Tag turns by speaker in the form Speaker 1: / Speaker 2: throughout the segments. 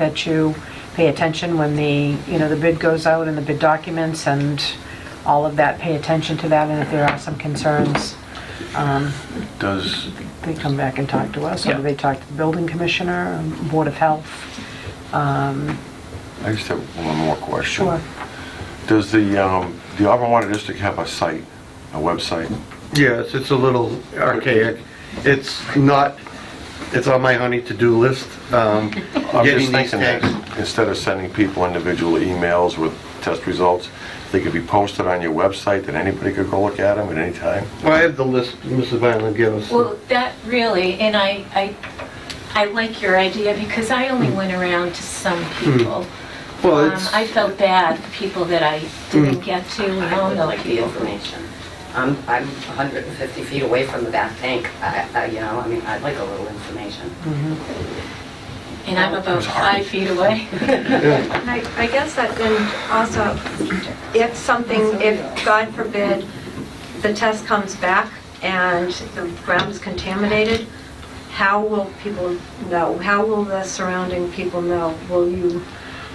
Speaker 1: that you pay attention when the, you know, the bid goes out and the bid documents and all of that, pay attention to that, and if there are some concerns, um,
Speaker 2: Does,
Speaker 1: they come back and talk to us,
Speaker 3: Yeah.
Speaker 1: or they talk to the building commissioner, Board of Health.
Speaker 2: I just have one more question.
Speaker 1: Sure.
Speaker 2: Does the, um, the Auburn Water District have a site, a website?
Speaker 4: Yes, it's a little archaic. It's not, it's on my honey to-do list. um,
Speaker 2: I'm just
Speaker 4: getting these
Speaker 2: thinking that
Speaker 4: things.
Speaker 2: instead of sending people individual emails with test results, they could be posted on your website that anybody could go look at them at any time?
Speaker 4: Well, I have the list Mrs. Violent gave us.
Speaker 5: Well, that really, and I, I, I like your idea because I only went around to some people.
Speaker 4: Hmm. Well,
Speaker 5: Um,
Speaker 4: it's, Hmm.
Speaker 5: I felt bad for people that I didn't get to, and
Speaker 6: I
Speaker 5: all
Speaker 6: would
Speaker 5: those
Speaker 6: like the
Speaker 5: people.
Speaker 6: information. I'm, I'm 150 feet away from the back tank, I, I- you know, I mean, I'd like a little information.
Speaker 5: And I'm about five feet away.
Speaker 4: yeah,
Speaker 7: I I guess that then also, if something, if, God forbid, the test comes back and the ground is contaminated, how will people know? How will the surrounding people know? Will you,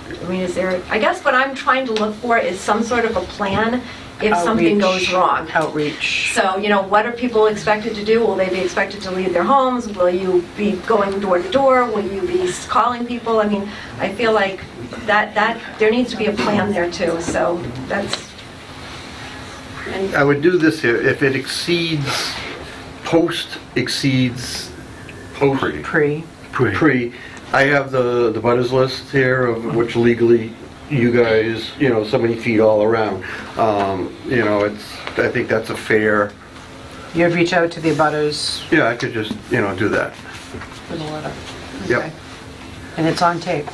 Speaker 7: I mean, is there, I guess what I'm trying to look for is some sort of a plan if something
Speaker 1: Outreach-
Speaker 7: goes wrong.
Speaker 1: Outreach.
Speaker 7: So, you know, what are people expected to do? Will they be expected to leave their homes? Will you be going door to door? Will you be calling people? I mean, I feel like that, that, there needs to be a plan there too, so that's,
Speaker 4: I would do this here, if it exceeds, post exceeds post
Speaker 1: Pre,
Speaker 4: pre, I have the, the butters list here of which legally you guys, you know, so many feet all around. Um, You know, it's, I think that's a fair,
Speaker 1: you reach out to the abutters
Speaker 4: yeah, I could just, you know, do that.
Speaker 1: with a letter.
Speaker 4: Yep.
Speaker 1: Okay. And it's on tape.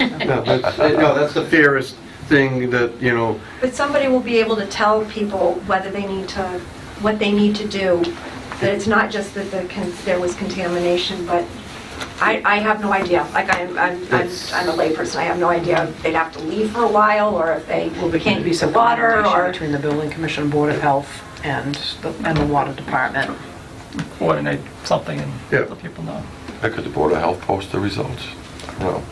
Speaker 4: No, that's, no, that's the fairest thing that, you know,
Speaker 7: but somebody will be able to tell people whether they need to, what they need to do, that it's not just that the, con- there was contamination, but I, I have no idea. Like, I'm, I'm, I'm
Speaker 4: It's-
Speaker 7: I'm a layperson, I have no idea if they'd have to leave for a while, or if they
Speaker 1: Will there
Speaker 7: can't
Speaker 1: be
Speaker 7: use the
Speaker 1: some
Speaker 7: water,
Speaker 1: coordination
Speaker 7: or...
Speaker 1: between the building commission, board of health, and the, and the water department?
Speaker 3: coordinate something and
Speaker 4: Yeah.
Speaker 3: let people know.
Speaker 2: Or could the Board of Health post the results? I don't know.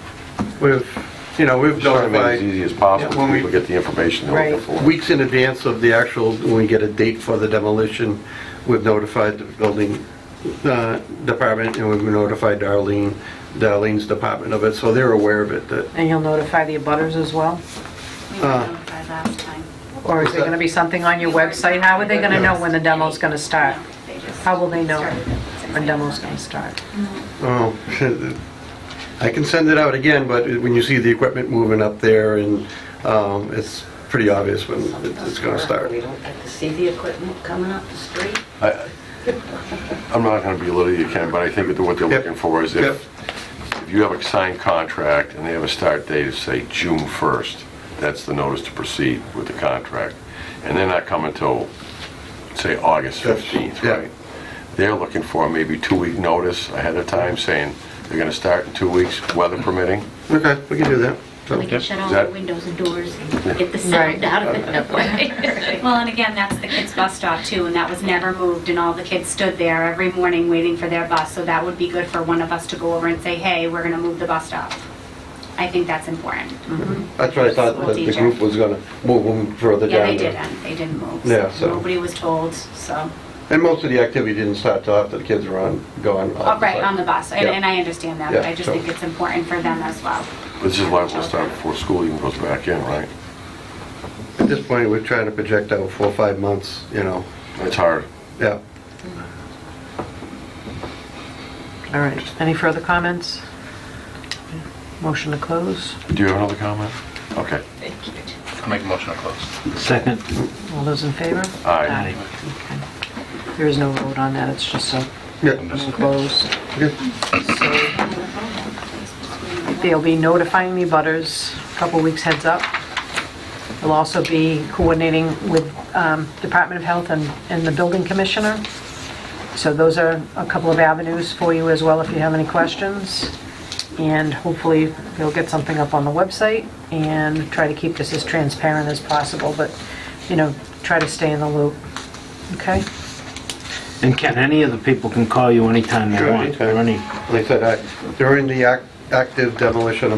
Speaker 4: we've, you know, we've
Speaker 2: Just trying to make it as
Speaker 4: notified
Speaker 2: easy as possible,
Speaker 4: Yeah, when
Speaker 2: so
Speaker 4: we-
Speaker 2: people get the information they're looking for.
Speaker 4: weeks in advance of the actual, when we get a date for the demolition, we've notified the building uh, department, and we've notified Darlene, Darlene's department of it, so they're aware of it, that,
Speaker 1: And you'll notify the abutters as well?
Speaker 6: We were
Speaker 4: Uh.
Speaker 6: notified last time.
Speaker 1: Or is there going to be something on your website? How are they going to know when the demo's going to start? How will they know when demo's going to start?
Speaker 4: oh, I can send it out again, but when you see the equipment moving up there, and um, it's pretty obvious when it's going to start.
Speaker 6: We don't get to see the equipment coming up the street.
Speaker 2: I- I'm not going to belittle you, Ken, but I think that what they're
Speaker 4: Yep.
Speaker 2: looking for is
Speaker 4: Yep.
Speaker 2: if, if you have a signed contract and they have a start date of, say, June 1st, that's the notice to proceed with the contract. And they're not coming till, say, August
Speaker 4: Yes.
Speaker 2: 15th,
Speaker 4: Yeah.
Speaker 2: right? They're looking for maybe two-week notice ahead of time, saying they're going to start in two weeks, weather permitting.
Speaker 4: Okay, we can do that. So-
Speaker 8: We can shut all
Speaker 2: Is that-
Speaker 8: the windows and doors and get the
Speaker 1: Right.
Speaker 8: sound out of it that way.
Speaker 9: Well, and again, that's the kids' bus stop too, and that was never moved, and all the kids stood there every morning waiting for their bus, so that would be good for one of us to go over and say, hey, we're gonna move the bus stop. I think that's important.
Speaker 4: That's what I thought, that the group was gonna move them further
Speaker 9: Yeah,
Speaker 4: down.
Speaker 9: they
Speaker 4: there.
Speaker 9: didn't, they didn't move.
Speaker 4: Yeah, so-
Speaker 9: Nobody was told, so,
Speaker 4: And most of the activity didn't start till after the kids were on, gone.
Speaker 9: Oh, right, on the bus, and
Speaker 4: Yeah.
Speaker 9: and I understand that, but
Speaker 4: Yeah,
Speaker 9: I just
Speaker 4: so-
Speaker 9: think it's important for them as well.
Speaker 2: This is liable to start before school even goes back in, right?
Speaker 4: At this point, we're trying to project out four, or five months, you know,
Speaker 2: It's hard.
Speaker 4: yeah.
Speaker 1: All right, any further comments? Motion to close?
Speaker 2: Do you have another comment? Okay.
Speaker 3: I'll make a motion to close.
Speaker 10: Second,
Speaker 1: All those in favor?
Speaker 2: Aye.
Speaker 1: Okay. There is no vote on that, it's just a
Speaker 4: Yeah,
Speaker 1: no close.
Speaker 4: okay.
Speaker 1: They'll be notifying the butters a couple weeks heads up. They'll also be coordinating with um, Department of Health and and the Building Commissioner. So those are a couple of avenues for you as well if you have any questions. And hopefully, they'll get something up on the website and try to keep this as transparent as possible, but, you know, try to stay in the loop, okay?
Speaker 10: and Ken, any of the people can call you anytime they
Speaker 4: Sure,
Speaker 10: want, or
Speaker 4: anytime.
Speaker 10: any
Speaker 4: Like I said, I- during the ac- active demolition